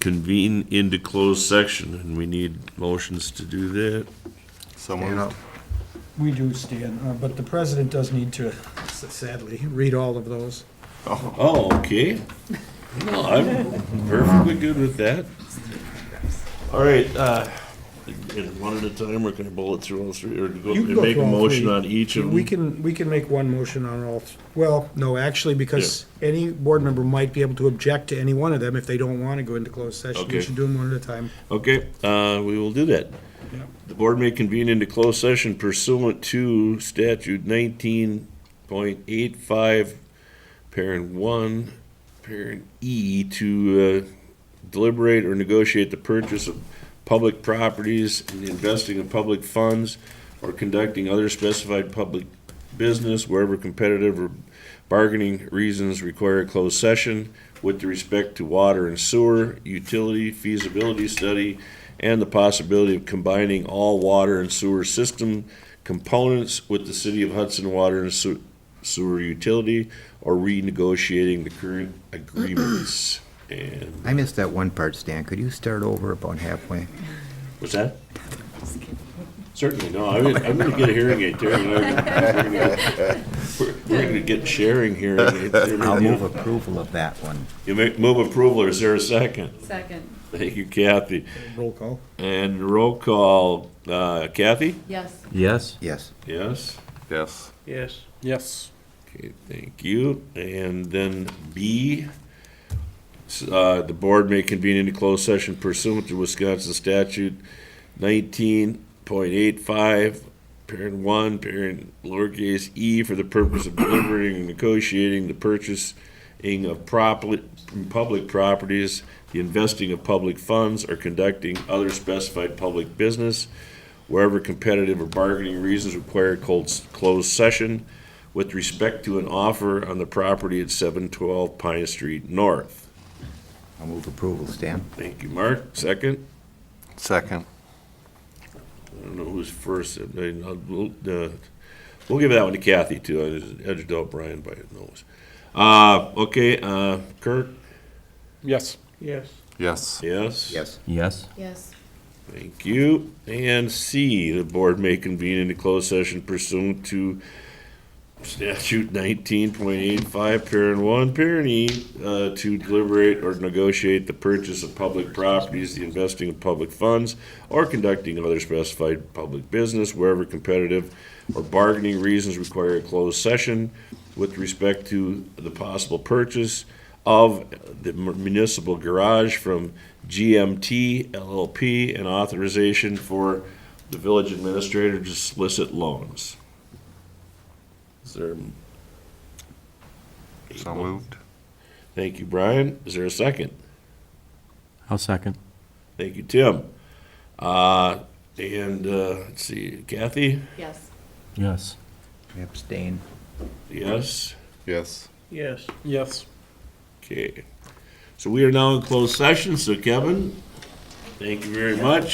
convene into closed section, and we need motions to do that. Someone, Stand up. We do, Stan, uh, but the president does need to sadly read all of those. Oh, okay. No, I'm perfectly good with that. All right, uh, in one at a time, or can I bullet through all three, or go, You can go make a through all motion three. on each of them? We can, we can make one motion on all, th- well, no, actually, because any board member might be able to object to any one of them if they don't want to go into closed session. Okay. We should do them one at a time. Okay, uh, we will do that. Yep. The board may convene into closed session pursuant to statute nineteen point eight five, parent one, parent E, to uh, deliberate or negotiate the purchase of public properties and the investing of public funds or conducting other specified public business wherever competitive or bargaining reasons require a closed session with respect to water and sewer, utility feasibility study, and the possibility of combining all water and sewer system components with the city of Hudson Water and Sew- Sewer Utility or renegotiating the current agreements. And, I missed that one part, Stan. Could you start over about halfway? what's that? Certainly, no, I mean, I'm gonna get a hearing aid there. and I'm gonna- We're we're gonna get sharing hearing aids. there. I'll move approval of that one. You make, move approval, or is there a second? Second, Thank you, Kathy. Roll call. And roll call, uh, Kathy? yes. Yes. Yes. Yes? yes. Yes. Okay, thank you. And then B, s- uh, the board may convene into closed session pursuant to Wisconsin statute nineteen point eight five, parent one, parent lowercase e, for the purpose of delivering and negotiating the purchasing of properly, public properties, the investing of public funds, or conducting other specified public business wherever competitive or bargaining reasons require cold- closed session with respect to an offer on the property at 712 Pine Street North. I'll move approval, Stan. Thank you, Mark. Second? Second. I don't know who's first. I mean, I'll- We'll uh, we'll give that one to Kathy, too. I just edged out Brian by a nose. Uh, Okay, uh, Kirk? Yes. Yes. Yes. Yes? Yes. Yes. Yes. Thank you. And C, the board may convene into closed session pursuant to statute nineteen point eight five, parent one, parent E, uh, to deliberate or negotiate the purchase of public properties, the investing of public funds, or conducting other specified public business wherever competitive or bargaining reasons require a closed session with respect to the possible purchase of the municipal garage from GMT LLP and authorization for the village administrator to solicit loans. Is there? So moved. Thank you, Brian. Is there a second? I'll second. Thank you, Tim. Uh, and, uh, let's see, Kathy? Yes. Yes. Abstain. Yes? Yes. Yes. Yes. Okay. So we are now in closed session, so Kevin, thank you very much.